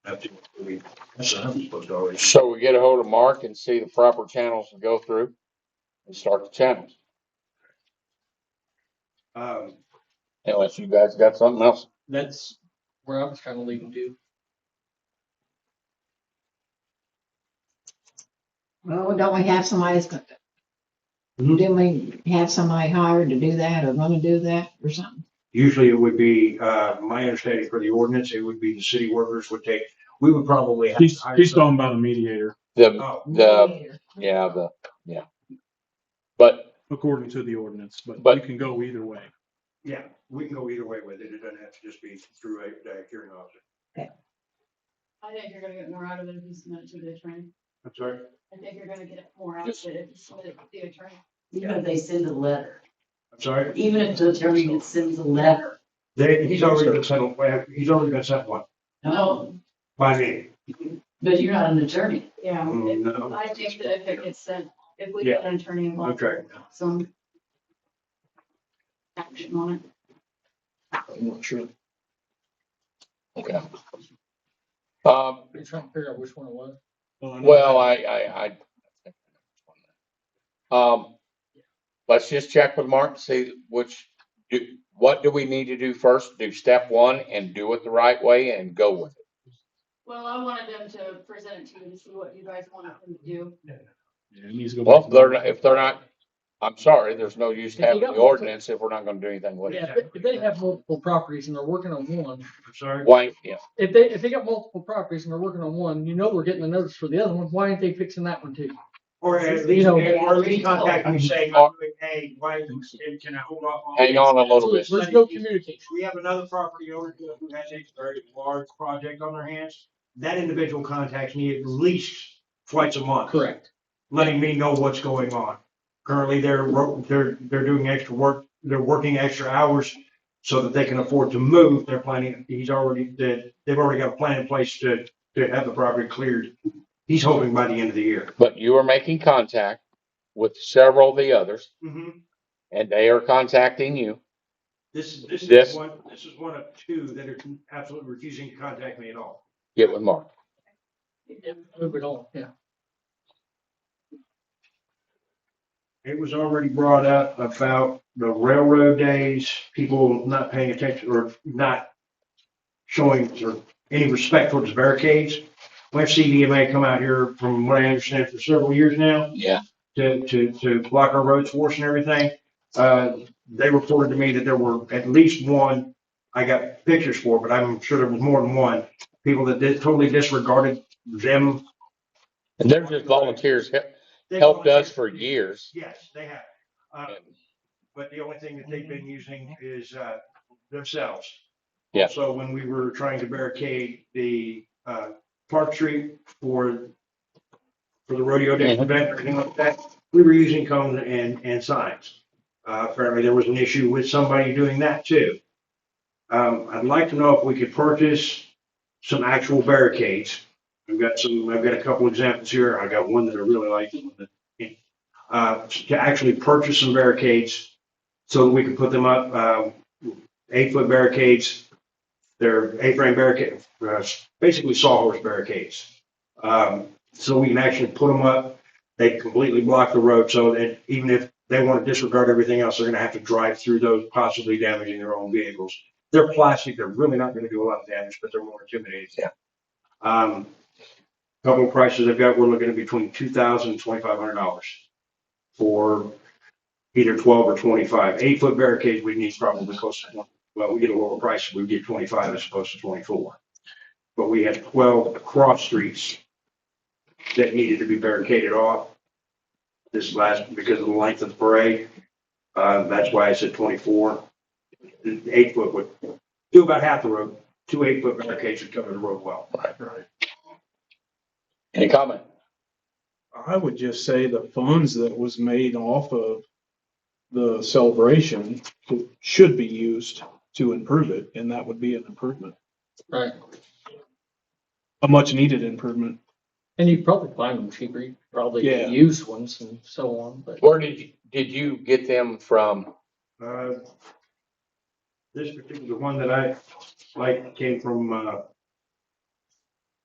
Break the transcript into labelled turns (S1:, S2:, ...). S1: budget. We- That's another supposed to already.
S2: So we get a hold of Mark and see the proper channels to go through and start the channels.
S3: Um,
S2: Unless you guys got something else.
S4: That's where I was kind of leading to.
S5: Well, don't we have somebody that's gonna? Didn't we have somebody hired to do that or gonna do that or something?
S1: Usually it would be, uh, my understanding for the ordinance, it would be the city workers would take, we would probably have. to
S6: He's,
S1: hire
S6: he's
S1: some-
S6: talking about a mediator,
S2: The,
S1: Oh,
S2: the, yeah, the, yeah. But,
S6: according to the ordinance, but
S2: But-
S6: you can go either way.
S1: yeah, we can go either way with it. It doesn't have to just be through a, a hearing officer.
S7: I think you're gonna get more out of it if you submit it to the attorney.
S1: I'm sorry?
S7: I think you're gonna get more out of it if you submit it to the attorney.
S8: Even if they send a letter,
S1: I'm sorry?
S8: even if the attorney sends a letter,
S1: They, he's already been sent, one- he's already been sent one
S8: no,
S1: by me.
S8: but you're not an attorney.
S7: Yeah.
S1: Mm, no.
S7: I think that if it gets sent, if we get an attorney involved,
S1: Okay.
S7: some action on it.
S4: I'm not sure.
S2: okay. Um,
S4: You're trying to figure out which one it was.
S6: Uh, I know-
S2: well, I, I, I. Um, let's just check with Mark, and see which, do, what do we need to do first? Do step one and do it the right way and go with it.
S7: Well, I wanted them to present it to you to see what you guys wanted them to do.
S6: Yeah, it needs to go
S2: Well,
S6: back
S2: if
S6: to-
S2: they're, not- if they're not, I'm sorry, there's no use to
S4: If you
S2: having the
S4: don't-
S2: ordinance if we're not gonna do anything with it.
S4: Yeah, if they- if they have multiple properties and they're working on one,
S1: I'm sorry?
S2: Why, yeah.
S4: if they, if they got multiple properties and they're working on one, you know we're getting a notice for the other one, why aren't they fixing that one too?
S1: Or at
S4: You
S1: least,
S4: know-
S1: or at least contact me saying, I'm doing A, why, and can I hold off? on
S2: Hang
S1: this?
S2: on a little bit.
S4: There's no communication.
S1: We have another property owner who has a very large project on their hands. That individual contacts me at least twice a month.
S4: Correct.
S1: letting me know what's going on. Currently, they're, ro- they're, they're doing extra work, they're working extra hours so that they can afford to move. They're planning, he's already, they- they've already got a plan in place to, to have the property cleared. He's hoping by the end of the year.
S2: But you are making contact with several of the others
S1: Mm-hmm.
S2: and they are contacting you.
S1: This, is- this
S2: This-
S1: is one, this is one of two that are absolutely refusing to contact me at all.
S2: Get with Mark.
S4: Move it on, yeah.
S1: It was already brought up about the railroad days, people not paying attention or not showing or any respect towards barricades. We've seen EMA come out here from what I understand for several years now
S2: Yeah.
S1: to, to, to block our roads for us and everything. Uh, they reported to me that there were at least one, I got pictures for, but I'm sure there was more than one. People that did- totally disregarded them.
S2: And they're just volunteers, hel- helped us for years.
S1: Yes, they have. Uh, but the only thing that they've been using is uh, themselves.
S2: Yeah.
S1: So when we were trying to barricade the uh, Park Street for for the rodeo day
S2: Mhm.
S1: event or anything like that, we were using cones and and signs. Uh, apparently, there was an issue with somebody doing that too. Um, I'd like to know if we could purchase some actual barricades. I've got some. I've got a couple examples here. I got one that I really like. one that- Uh, to actually purchase some barricades so that we can put them up, uh, eight foot barricades. They're A-frame barricade, uh, basically sawhorse barricades. Um, so we can actually put them up. They completely block the road so that even if they want to disregard everything else, they're going to have to drive through those, possibly damaging their own vehicles. They're plastic. They're really not going to do a lot of damage, but they're more intimidating.
S2: Yeah.
S1: Um, couple of prices I've got, we're looking at between two thousand and twenty-five hundred dollars for either twelve or twenty-five. Eight-foot barricades, we need probably close to, one- well, we get a lower price, we get twenty-five as opposed to twenty-four. But we had twelve cross streets that needed to be barricaded off this last, because of the length of the parade. Uh, that's why I said twenty-four. The Eight-foot would do about half the road. Two eight-foot barricades would cover the road well.
S2: Any comment?
S6: I would just say the funds that was made off of the celebration should be used to improve it, and that would be an improvement,
S4: Right.
S6: a much needed improvement.
S4: And you probably find them cheaper, you probably
S6: Yeah.
S4: use ones and so on, but.
S2: Where did you, did you get them from?
S1: Uh, This particular one that I like came from, uh,